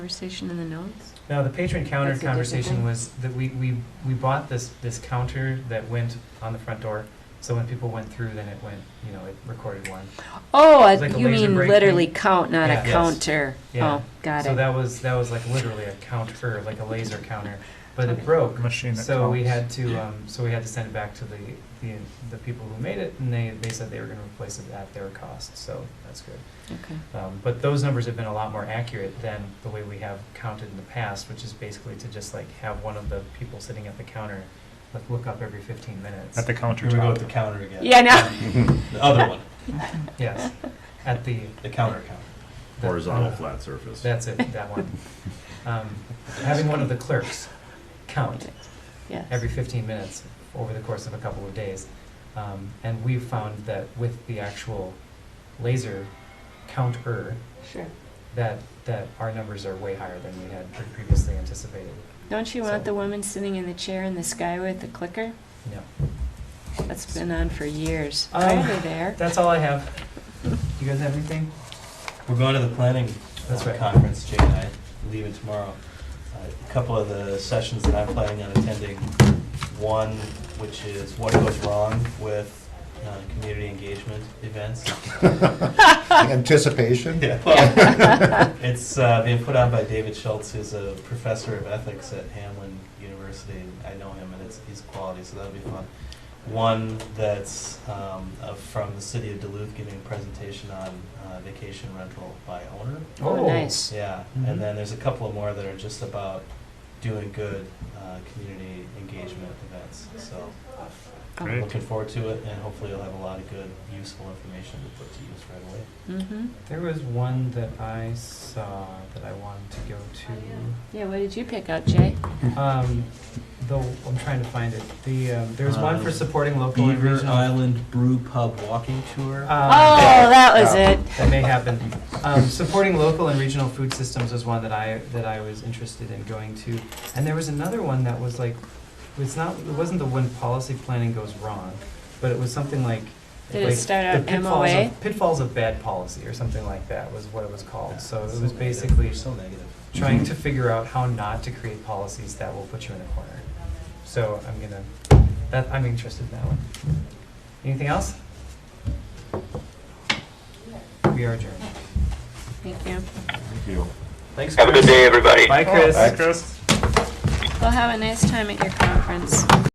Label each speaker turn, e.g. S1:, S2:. S1: Conversation in the notes?
S2: No, the patron counter
S1: That's a different
S2: conversation
S1: thing.
S2: was that we, we, we bought this, this counter that went on the front door. So when people went through, then it went, you know, it recorded one.
S1: Oh,
S2: It's like a
S1: you
S2: laser
S1: mean
S2: break
S1: literally
S2: thing.
S1: count, not
S2: Yeah.
S1: a
S2: Yes.
S1: counter?
S2: Yeah.
S1: Oh, got
S2: So
S1: it.
S2: that was, that was like literally a counter, like a laser counter, but it broke.
S3: machine that
S2: So we
S3: counts.
S2: had to, um, so we had to send it back to the, the, the people who made it and they, they said they were gonna replace it at their cost, so that's good.
S1: Okay.
S2: Um, But those numbers have been a lot more accurate than the way we have counted in the past, which is basically to just like have one of the people sitting at the counter, like look up every fifteen minutes.
S3: At the
S4: Here we go with
S3: countertop.
S4: the counter again.
S1: Yeah, no.
S2: Um,
S4: The other one,
S2: Yes, at the.
S4: the counter counter.
S2: the- uh,
S5: horizontal flat surface.
S2: That's it, that one. Um, Having one of the clerks count
S1: Yes.
S2: every fifteen minutes over the course of a couple of days. Um, And we've found that with the actual laser counter,
S1: Sure.
S2: that, that our numbers are way higher than we had previously anticipated.
S1: Don't you want
S2: So-
S1: the woman sitting in the chair in the sky with the clicker?
S2: No.
S1: That's been on for years.
S2: Um,
S1: Why are they there?
S2: That's all I have. You guys have anything?
S4: We're going to the planning
S2: That's
S4: uh,
S2: right.
S4: conference, Jay and I, leaving tomorrow. Uh, A couple of the sessions that I'm planning on attending, one which is what goes wrong with uh, community engagement events.
S6: Anticipation?
S4: Yeah, well, It's uh, being put on by David Schultz, who's a professor of ethics at Hamlin University, and I know him, and it's, he's quality, so that'll be fun. One that's um, uh, from the city of Duluth giving a presentation on uh, vacation rental by owner.
S1: Oh, nice.
S4: Yeah,
S2: Mhm.
S4: and then there's a couple of more that are just about doing good uh, community engagement events. So
S1: Oh.
S4: I'm
S3: Great.
S4: looking forward to it, and hopefully you'll have a lot of good, useful information to put to use right away.
S1: Mm-hmm.
S2: There was one that I saw that I wanted to go
S1: Yeah, what did you pick out, Jay?
S2: to. Um, the, I'm trying to find it. The, um, there's one for
S4: Um,
S2: supporting local and regional.
S4: Island Brew Pub walking tour.
S2: Um,
S1: Oh, that was
S2: yeah,
S1: it.
S2: That may happen. Um, supporting local and regional food systems was one that I, that I was interested in going to. And there was another one that was like, it's not, it wasn't the when policy planning goes wrong, but it was something like.
S1: Did it
S2: like
S1: start
S2: the
S1: out
S2: pitfalls of-
S1: MOA?
S2: Pitfalls of bad policy or something like that was what it was called. So it was
S4: negative.
S2: basically
S4: so negative.
S2: trying to figure out how not to create policies that will put you in a corner. So I'm gonna, that, I'm interested in that one. Anything else? We are adjourned.
S1: Thank you.
S5: Thank you.
S4: Thanks.
S7: Have a
S4: Chris.
S7: good day, everybody.
S2: Bye, Chris.
S3: Hi, Chris.
S1: Well, have a nice time at your conference.